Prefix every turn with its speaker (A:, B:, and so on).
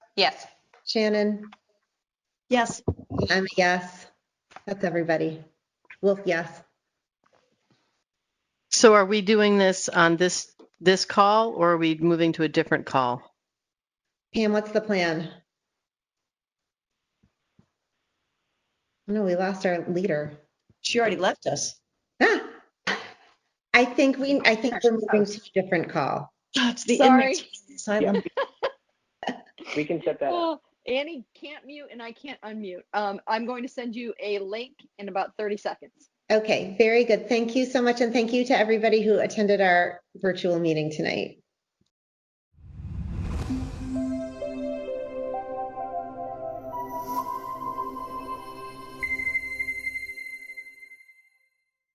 A: Yes.
B: Shannon?
C: Yes,
B: I'm a yes. That's everybody. Wolf, yes.
D: So are we doing this on this, this call or are we moving to a different call?
B: Pam, what's the plan? No, we lost our leader.
C: she already left us.
B: Ah. I think we, I think we're moving to a different call.
C: It's the
E: Sorry.
C: inmates. Silent.
F: We can set that up.
E: Oh, Annie can't mute and I can't unmute. Um, I'm going to send you a link in about 30 seconds.
B: Okay, very good. Thank you so much. And thank you to everybody who attended our virtual meeting tonight.